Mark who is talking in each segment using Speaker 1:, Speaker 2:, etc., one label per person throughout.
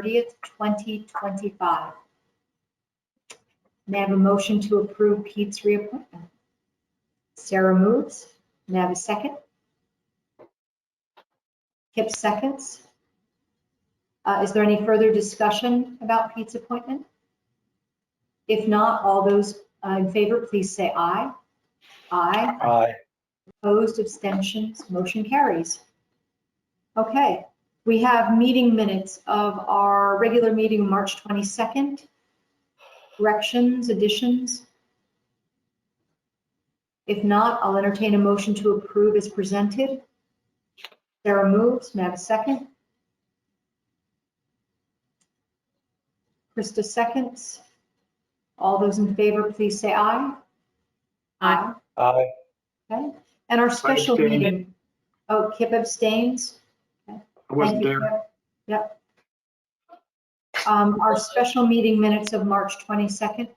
Speaker 1: 30th, 2025. May I have a motion to approve Pete's reappointment? Sarah moves. May I have a second? Kip seconds. Uh, Is there any further discussion about Pete's appointment? If not, all those uh, in favor, please say aye. Aye.
Speaker 2: Aye.
Speaker 1: Opposed, abstentions, motion carries. Okay, we have meeting minutes of our regular meeting, March 22nd. Corrections, additions? If not, I'll entertain a motion to approve as presented. Sarah moves, may I have a second? Krista seconds. All those in favor, please say aye. Aye.
Speaker 2: Aye.
Speaker 1: Okay, and our special
Speaker 3: abstained.
Speaker 1: meeting, oh, Kip abstains?
Speaker 3: I wasn't
Speaker 1: Thank you,
Speaker 3: there.
Speaker 1: Kip. Yep. Um, our special meeting minutes of March 22nd.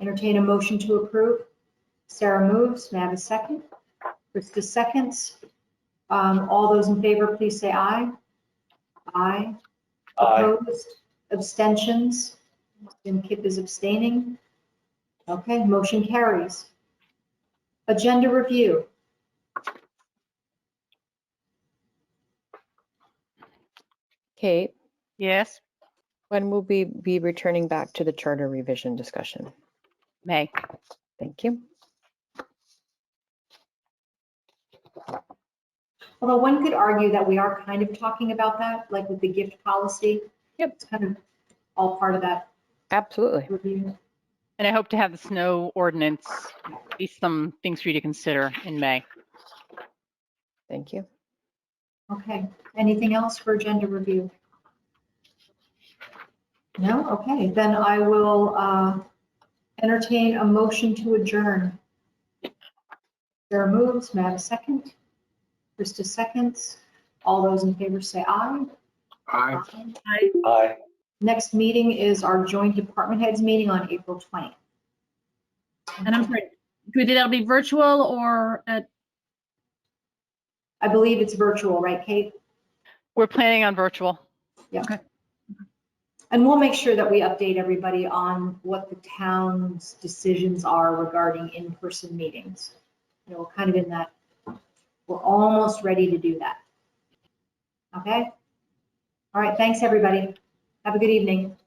Speaker 1: Entertain a motion to approve. Sarah moves, may I have a second? Krista seconds. Um, all those in favor, please say aye. Aye.
Speaker 2: Aye.
Speaker 1: Opposed, abstentions, Jim Kip is abstaining. Okay, motion carries. Agenda review.
Speaker 4: Kate,
Speaker 5: Yes,
Speaker 4: when will we be returning back to the charter revision discussion?
Speaker 5: May.
Speaker 4: Thank you.
Speaker 1: Although one could argue that we are kind of talking about that, like with the gift policy.
Speaker 4: Yep.
Speaker 1: It's kind of all part of that
Speaker 4: Absolutely.
Speaker 1: review.
Speaker 5: And I hope to have the snow ordinance, at least some things for you to consider in May.
Speaker 4: Thank you.
Speaker 1: Okay, anything else for agenda review? No? Okay, then I will uh, entertain a motion to adjourn. Sarah moves, may I have a second? Krista seconds. All those in favor say aye.
Speaker 3: Aye.
Speaker 2: Aye.
Speaker 1: Next meeting is our joint department heads meeting on April 20th.
Speaker 6: And I'm sorry, do that'll be virtual or uh, at,
Speaker 1: I believe it's virtual, right, Kate?
Speaker 5: We're planning on virtual.
Speaker 1: And we'll make sure that we update everybody on what the town's decisions are regarding in-person meetings. You know, we're kind of in that, we're almost ready to do that. Okay? All right, thanks, everybody. Have a good evening.